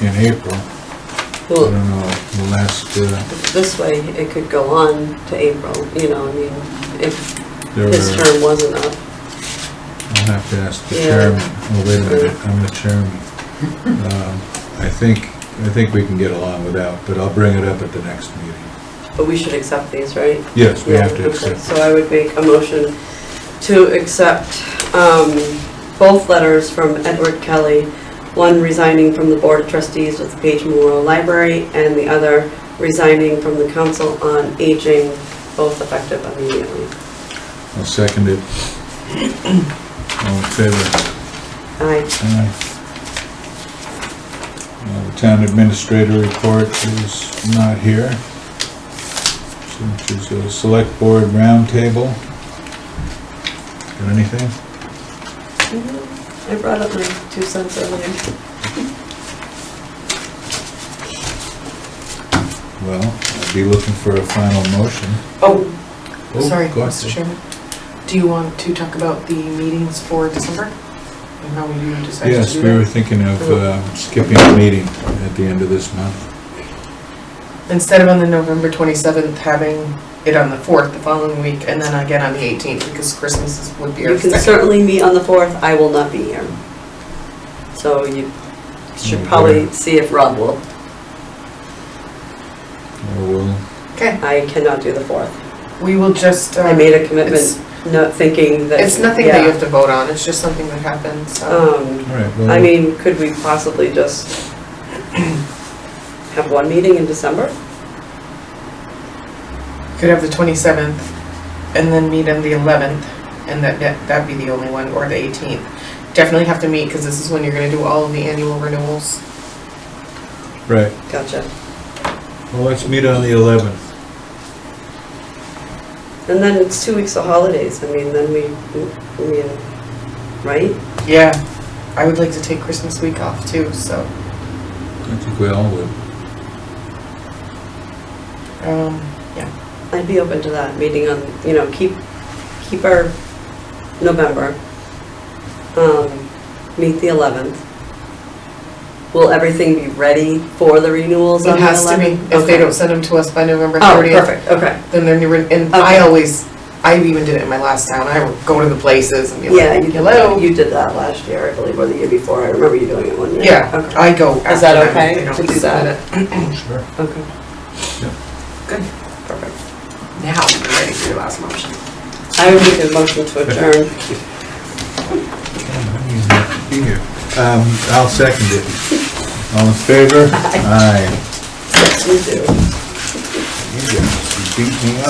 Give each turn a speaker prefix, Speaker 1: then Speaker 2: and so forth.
Speaker 1: in April. I don't
Speaker 2: Well,
Speaker 1: know, the last, uh,
Speaker 2: this way, it could go on to April, you know, I mean, if
Speaker 1: there were,
Speaker 2: his term wasn't up.
Speaker 1: I'll have to ask the
Speaker 2: Yeah.
Speaker 1: chairman, oh, wait a minute, I'm the chairman. Um, I think, I think we can get along without, but I'll bring it up at the next meeting.
Speaker 2: But we should accept these, right?
Speaker 1: Yes, we have
Speaker 2: Yeah,
Speaker 1: to
Speaker 2: okay.
Speaker 1: accept.
Speaker 2: So I would make a motion to accept um, both letters from Edward Kelly, one resigning from the Board of Trustees with the Page Memorial Library, and the other resigning from the Council on Aging, both effective immediately.
Speaker 1: I'll second it. All in favor?
Speaker 2: Aye.
Speaker 1: Aye. Uh, The town administrator report is not here. So which is a select board roundtable. Got anything?
Speaker 2: I brought up my two cents earlier.
Speaker 1: Well, I'd be looking for a final motion.
Speaker 3: Oh,
Speaker 1: Oh,
Speaker 3: sorry,
Speaker 1: go
Speaker 3: Mr.
Speaker 1: ahead.
Speaker 3: Chairman. Do you want to talk about the meetings for December? And how we do decide to
Speaker 1: Yes,
Speaker 3: do
Speaker 1: we were
Speaker 3: that?
Speaker 1: thinking of uh, skipping a meeting at the end of this month.
Speaker 3: Instead of on the November 27th, having it on the 4th, the following week, and then again on the 18th, because Christmas is- would be our
Speaker 2: You can
Speaker 3: second.
Speaker 2: certainly meet on the 4th, I will not be here. So you should
Speaker 1: Okay.
Speaker 2: probably see if Rob will.
Speaker 1: Or Oh, we'll,
Speaker 3: Okay,
Speaker 2: I cannot do the 4th.
Speaker 3: we will just,
Speaker 2: I
Speaker 3: um,
Speaker 2: made a commitment,
Speaker 3: it's-
Speaker 2: not thinking that.
Speaker 3: it's nothing that you
Speaker 2: yeah.
Speaker 3: have to vote on, it's just something that happens, so.
Speaker 2: Um,
Speaker 1: all right,
Speaker 2: I
Speaker 1: well,
Speaker 2: mean, could we possibly just have one meeting in December? Oh.
Speaker 3: You Could have the 27th, and then meet on the 11th, and that, that- that'd be the only one, or the 18th. Definitely have to meet, because this is when you're gonna do all of the annual renewals.
Speaker 1: right,
Speaker 2: Gotcha.
Speaker 1: well, let's meet on the 11th.
Speaker 2: And then it's two weeks of holidays, I mean, then we, I mean, right?
Speaker 3: Yeah, I would like to take Christmas week off too, so,
Speaker 1: I think we all would.
Speaker 3: um,
Speaker 2: I'd be open to that, meeting on, you know, keep, keep our November, um, meet the 11th. Will everything be ready for the renewals on
Speaker 3: it
Speaker 2: the 11th?
Speaker 3: has to be, if they
Speaker 2: Okay.
Speaker 3: don't send them to us by November
Speaker 2: Oh,
Speaker 3: thirtieth,
Speaker 2: perfect, okay.
Speaker 3: then they're new, and
Speaker 2: Okay.
Speaker 3: I always, I even did it in my last town, I would go to the places and be
Speaker 2: Yeah,
Speaker 3: like,
Speaker 2: you did that,
Speaker 3: hello.
Speaker 2: you did that last year, I believe, or the year before, I remember you doing it one year.
Speaker 3: Yeah,
Speaker 2: Okay,
Speaker 3: I go
Speaker 2: Is
Speaker 3: after
Speaker 2: that
Speaker 3: them
Speaker 2: okay
Speaker 3: if they don't
Speaker 2: to do
Speaker 3: submit
Speaker 2: that?
Speaker 3: it.
Speaker 1: Sure.
Speaker 2: okay.
Speaker 3: Perfect. Now, you're ready for your last motion.
Speaker 2: I would make a motion to adjourn.
Speaker 1: Be here. Um, I'll second it. All in favor? Aye.
Speaker 2: You do.
Speaker 1: You guys beat me up.